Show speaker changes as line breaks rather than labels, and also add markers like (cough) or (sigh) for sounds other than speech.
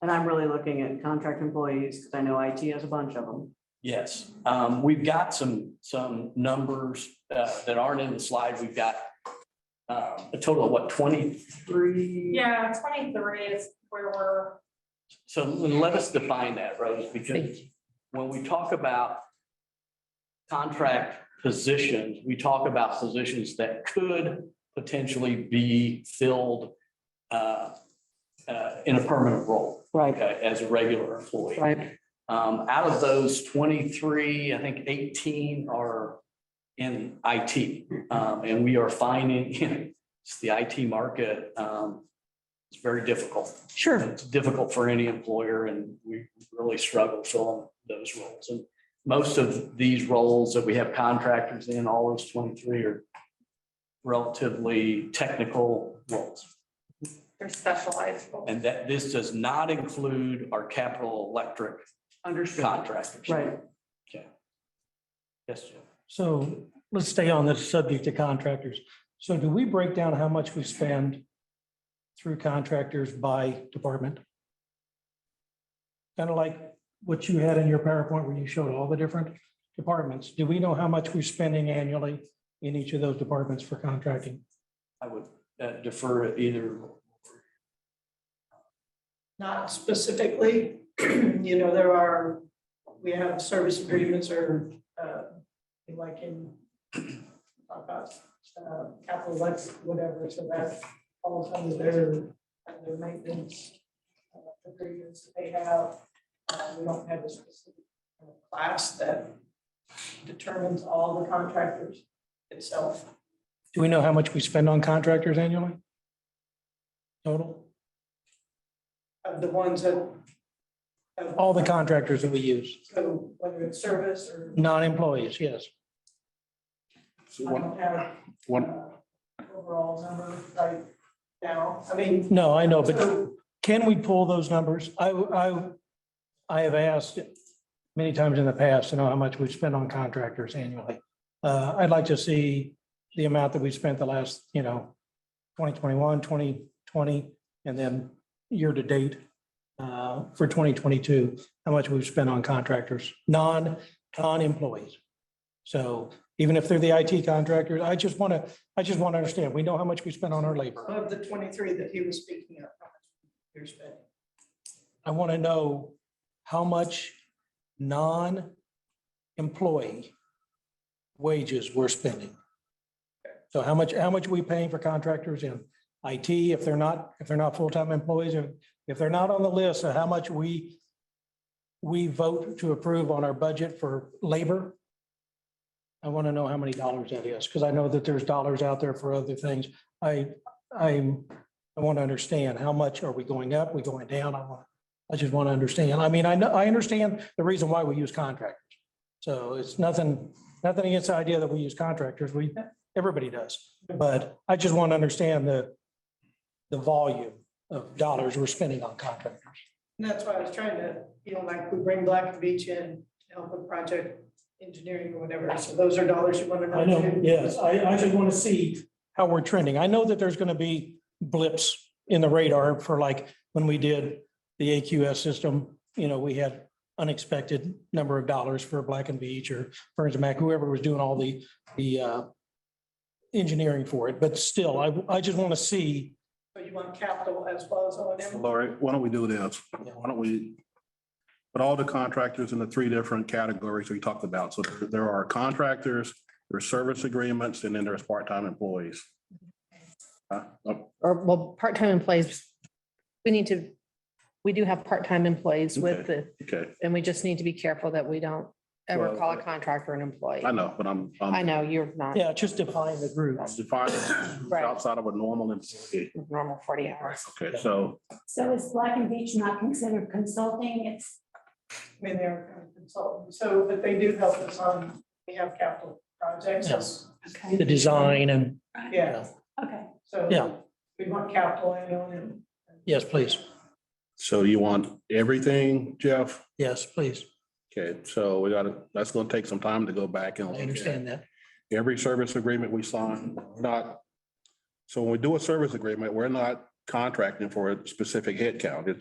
And I'm really looking at contract employees, because I know IT has a bunch of them.
Yes, um, we've got some, some numbers, uh, that aren't in the slide. We've got uh, a total of what, twenty-three?
Yeah, twenty-three is where we're,
So let us define that, Rose, because when we talk about contract positions, we talk about positions that could potentially be filled uh, uh, in a permanent role,
Right,
okay, as a regular employee.
right.
Um, out of those twenty-three, I think eighteen are in IT. Um, and we are finding, (laughs) it's the IT market, um, it's very difficult.
Sure.
It's difficult for any employer and we really struggle filling those roles. And most of these roles that we have contractors in, all those twenty-three are relatively technical roles.
they're specialized.
And that, this does not include our capital electric
Understood.
contractors.
Right.
Yes, Jim.
So let's stay on this subject of contractors. So do we break down how much we spend through contractors by department? Kind of like what you had in your PowerPoint where you showed all the different departments. Do we know how much we're spending annually in each of those departments for contracting?
I would uh, defer either.
Not specifically, (clears throat) you know, there are, we have service agreements or, uh, like in, (clears throat) talk about, uh, capital Lex, whatever, so that falls under their, under maintenance uh, agreements they have. Uh, we don't have a specific uh, class that determines all the contractors itself.
Do we know how much we spend on contractors annually? Total,
Of the ones that. of-
all the contractors that we use,
So whether it's service or,
non-employees, yes.
I
So one,
don't have
one,
overall number right now. I mean,
No, I know, but
so
Can we pull those numbers? I, I, I have asked many times in the past to know how much we've spent on contractors annually. Uh, I'd like to see the amount that we spent the last, you know, 2021, 2020, and then year to date uh, for 2022, how much we've spent on contractors, non, non-employees. So even if they're the IT contractors, I just want to, I just want to understand, we know how much we spent on our labor.
of the twenty-three that he was speaking of, how much you're spending.
I want to know how much non-employee wages we're spending. So how much, how much are we paying for contractors in IT if they're not, if they're not full-time employees or if they're not on the list, so how much we we vote to approve on our budget for labor? I want to know how many dollars that is, because I know that there's dollars out there for other things. I, I'm, I want to understand how much are we going up, we going down? I want, I just want to understand. I mean, I know, I understand the reason why we use contractors. So it's nothing, nothing against the idea that we use contractors. We, everybody does. But I just want to understand the, the volume of dollars we're spending on contractors.
And that's why I was trying to, you know, like, we bring Black Beach in to help with project engineering or whatever, so those are dollars you want to know.
I know,
too.
yes, I, I just want to see how we're trending. I know that there's going to be blips in the radar for like when we did the AQS system, you know, we had unexpected number of dollars for Black and Beach or Burns and Mac, whoever was doing all the, the uh, engineering for it. But still, I, I just want to see,
So you want capital as well as O and M.
Lori, why don't we do this? Why don't we put all the contractors in the three different categories we talked about? So there- there are contractors, there's service agreements, and then there's part-time employees. Uh, oh,
or well, part-time employees. We need to, we do have part-time employees with the,
Okay,
and we just need to be careful that we don't ever
Well,
call a contractor an employee.
I know, but I'm,
I
I'm
know you're not
yeah, just define the group.
I'm defining who's
(coughs) Right.
outside of a normal employee.
normal forty hours.
Okay, so
So is Black and Beach not considered consulting? It's,
I mean, they're kind of consultants, so, but they do help us on, we have capital projects.
Yes.
okay,
The design and,
Yeah,
okay.
so.
Yeah.
We want capital and O and M.
yes, please.
so you want everything, Jeff?
Yes, please.
Okay, so we gotta, that's gonna take some time to go back and.
I
look at
understand that.
Every service agreement we sign, we're not, so when we do a service agreement, we're not contracting for a specific headcount. It's